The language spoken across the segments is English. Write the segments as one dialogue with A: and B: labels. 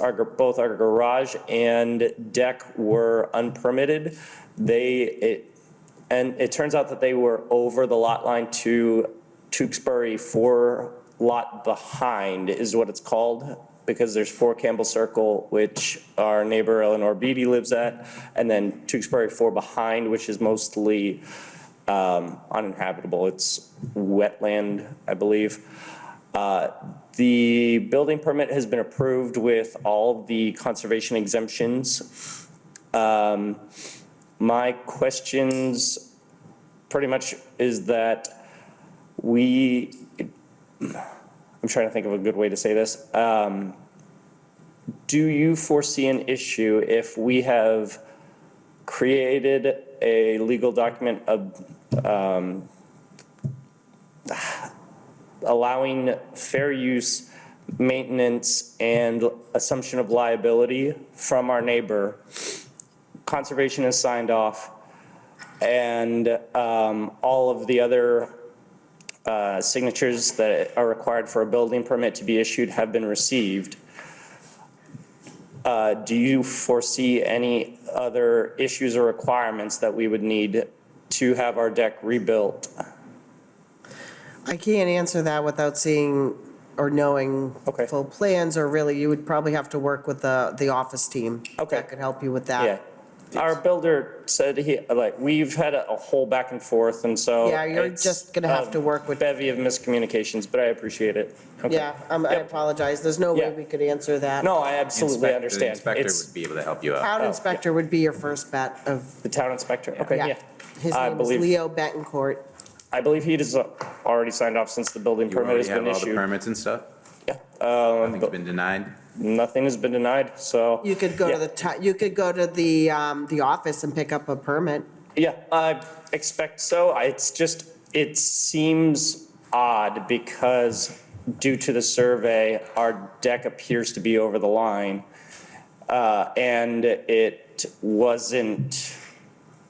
A: our, gar- both our garage and deck were unpermitted. They, it, and it turns out that they were over the lot line to Tewksbury, four lot behind is what it's called, because there's four Campbell Circle, which our neighbor Eleanor Beatty lives at, and then Tewksbury four behind, which is mostly um, uninhabitable. It's wetland, I believe. Uh, The building permit has been approved with all the conservation exemptions. Um, my questions pretty much is that we, I'm trying to think of a good way to say this. Um, Do you foresee an issue if we have created a legal document of, um, allowing fair use, maintenance, and assumption of liability from our neighbor? conservation has signed off, and um, all of the other uh, signatures that are required for a building permit to be issued have been received. Uh, Do you foresee any other issues or requirements that we would need to have our deck rebuilt?
B: I can't answer that without seeing or knowing
A: Okay.
B: full plans, or really, you would probably have to work with the, the office team.
A: Okay.
B: That could help you with
A: Yeah.
B: that.
A: Our builder said he, like, we've had a a whole back and forth, and so.
B: Yeah, you're
A: it's
B: just gonna have
A: a
B: to work with-
A: Bevy of miscommunications, but I appreciate it. Okay.
B: Yeah, um, I
A: Yep.
B: apologize, there's no way
A: Yeah.
B: we could answer that.
A: No, I absolutely
C: Inspector- The
A: understand.
C: inspector
A: It's
C: would be able to help you out.
B: Town
A: yeah.
B: inspector would be your first bet of,
A: the town inspector. Okay,
B: yeah.
A: yeah.
B: His
A: I
B: name is
A: believe-
B: Leo Betancourt.
A: I believe he has already signed off since the building
C: You
A: permit
C: already
A: has
C: have
A: been
C: all the
A: issued.
C: permits and stuff?
A: Yeah, um,
C: Nothing's been denied?
A: nothing has been denied, so.
B: You could go
A: Yeah.
B: to the, ti- you could go to the, um, the office and pick up a permit.
A: Yeah, I expect so. I- It's just, it seems odd because due to the survey, our deck appears to be over the line. Uh, And it wasn't,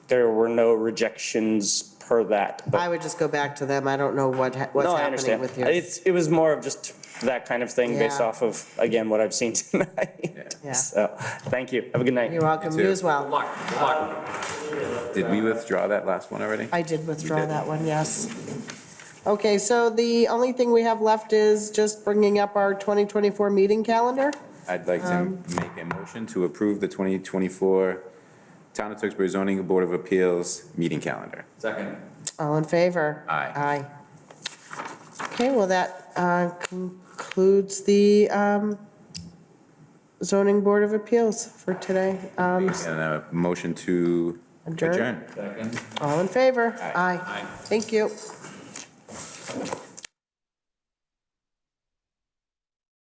A: there were no rejections per that. but-
B: I would just go back to them, I don't know what, ha- what's
A: No, I
B: happening
A: understand.
B: with you.
A: It's, it was more of just that kind of thing based
B: Yeah.
A: off of, again, what I've seen tonight.
B: Yeah.
A: So, thank you. Have a good night.
B: You're welcome,
C: You
B: you
C: too.
B: as well.
C: Did we withdraw that last one already?
B: I did withdraw
C: did.
B: that one, yes. Okay, so the only thing we have left is just bringing up our 2024 meeting calendar.
C: I'd like to
B: um,
C: make a motion to approve the 2024 Town of Tewksbury Zoning Board of Appeals meeting calendar.
B: All in favor?
C: Aye.
B: Aye. Okay, well, that uh, concludes the um, zoning board of appeals for today. Um,
C: And a motion to
B: Adjourn.
C: adjourn.
B: All in favor? Aye. Thank you.